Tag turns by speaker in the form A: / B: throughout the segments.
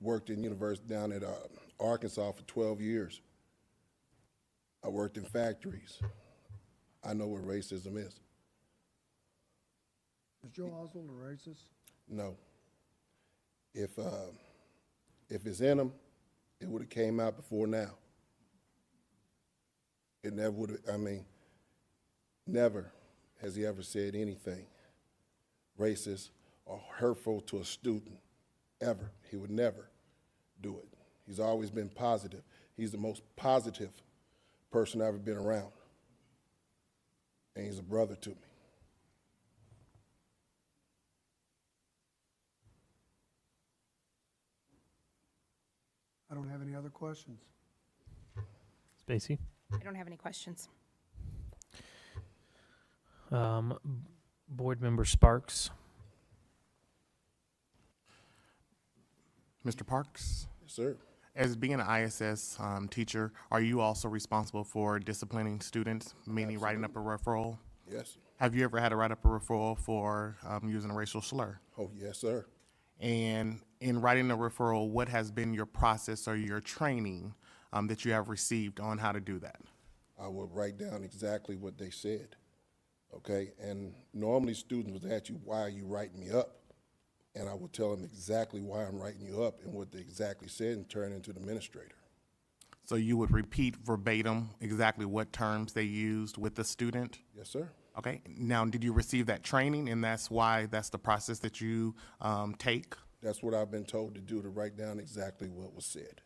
A: Worked in univers, down at, uh, Arkansas for twelve years. I worked in factories. I know what racism is.
B: Is Joe Oswald a racist?
A: No. If, uh, if it's in them, it would've came out before now. It never would've, I mean, never has he ever said anything racist or hurtful to a student, ever. He would never do it. He's always been positive. He's the most positive person I've ever been around. And he's a brother to me.
B: I don't have any other questions.
C: Spacey.
D: I don't have any questions.
C: Um, b- board member Sparks.
E: Mr. Parks,
A: Yes, sir.
E: as being an ISS um, teacher, are you also responsible for disciplining students, meaning writing up a referral?
A: Yes.
E: Have you ever had to write up a referral for um, using a racial slur?
A: Oh, yes, sir.
E: And in writing a referral, what has been your process or your training um, that you have received on how to do that?
A: I would write down exactly what they said, okay? And normally students would ask you, why are you writing me up? And I would tell them exactly why I'm writing you up and what they exactly said and turn into the administrator.
E: So you would repeat verbatim exactly what terms they used with the student?
A: Yes, sir?
E: Okay, now, did you receive that training and that's why, that's the process that you um, take?
A: That's what I've been told to do, to write down exactly what was said.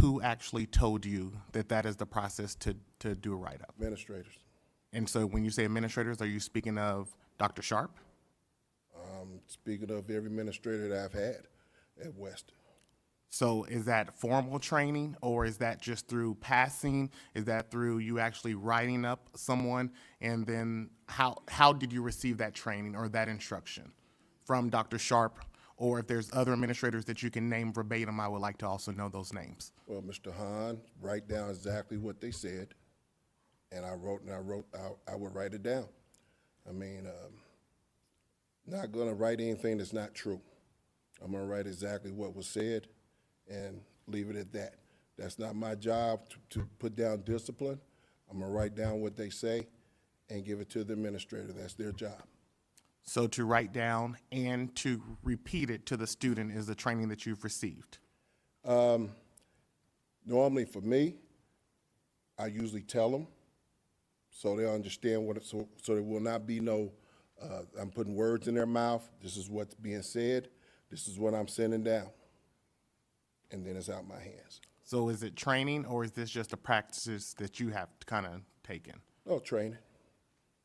E: who actually told you that that is the process to, to do a write-up?
A: Administrators,
E: And so when you say administrators, are you speaking of Dr. Sharp?
A: um, speaking of every administrator that I've had at West,
E: So is that formal training or is that just through passing? Is that through you actually writing up someone? And then how, how did you receive that training or that instruction from Dr. Sharp? Or if there's other administrators that you can name verbatim, I would like to also know those names.
A: well, Mr. Hahn, write down exactly what they said. And I wrote, and I wrote, I, I would write it down. I mean, um, not gonna write anything that's not true. I'm gonna write exactly what was said and leave it at that. That's not my job to, to put down discipline. I'm gonna write down what they say and give it to the administrator. That's their job.
E: So to write down and to repeat it to the student is the training that you've received.
A: Um, Normally for me, I usually tell them so they understand what, it- so, so there will not be no, uh, I'm putting words in their mouth. This is what's being said. This is what I'm sending down. And then it's out my hands.
E: So is it training or is this just a practices that you have kind of taken?
A: No training.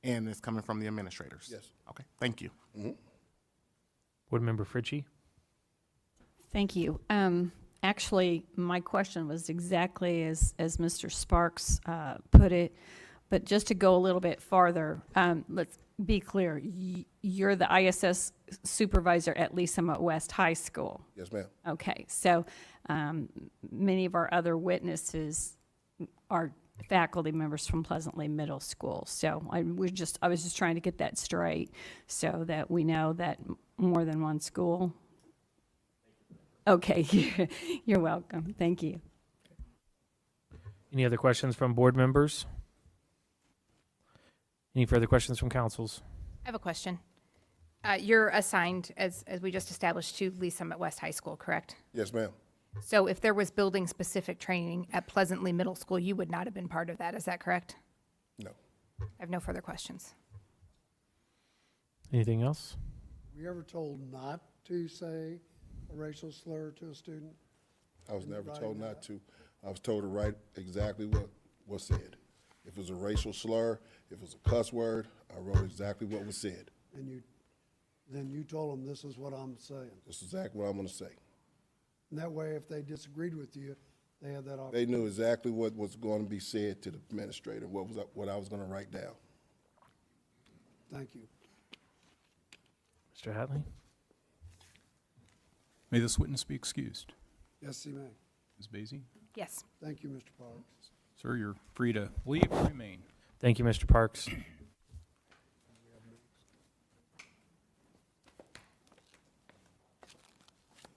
E: And it's coming from the administrators?
A: Yes.
E: Okay, thank you.
C: Board member Fritchie.
F: Thank you. Um, actually, my question was exactly as, as Mr. Sparks, uh, put it. But just to go a little bit farther, um, let's be clear. Y- You're the ISS supervisor at Lee Summit West High School.
A: Yes, ma'am.
F: Okay, so, um, many of our other witnesses are faculty members from Pleasantly Middle School. So I was just, I was just trying to get that straight so that we know that m- more than one school. Okay, you're welcome. Thank you.
C: Any other questions from board members? Any further questions from councils?
D: I have a question. Uh, You're assigned, as, as we just established, to Lee Summit West High School, correct?
A: Yes, ma'am.
D: So if there was building-specific training at Pleasantly Middle School, you would not have been part of that, is that correct?
A: No.
D: I have no further questions.
C: Anything else?
B: Were you ever told not to say a racial slur to a student?
A: I was never told not to. I was told to write exactly what was said. If it was a racial slur, if it was a cuss word, I wrote exactly what was said.
B: And you, then you told them, this is what I'm saying.
A: This is exactly what I'm gonna say.
B: And that way, if they disagreed with you, they had that option.
A: They knew exactly what was gonna be said to the administrator, what was, what I was gonna write down.
B: Thank you.
C: Mr. Hatley?
G: May this witness be excused.
B: Yes, he may.
G: Ms. Basie,
D: Yes.
B: Thank you, Mr. Parks.
G: sir, you're free to leave or remain.
C: Thank you, Mr. Parks.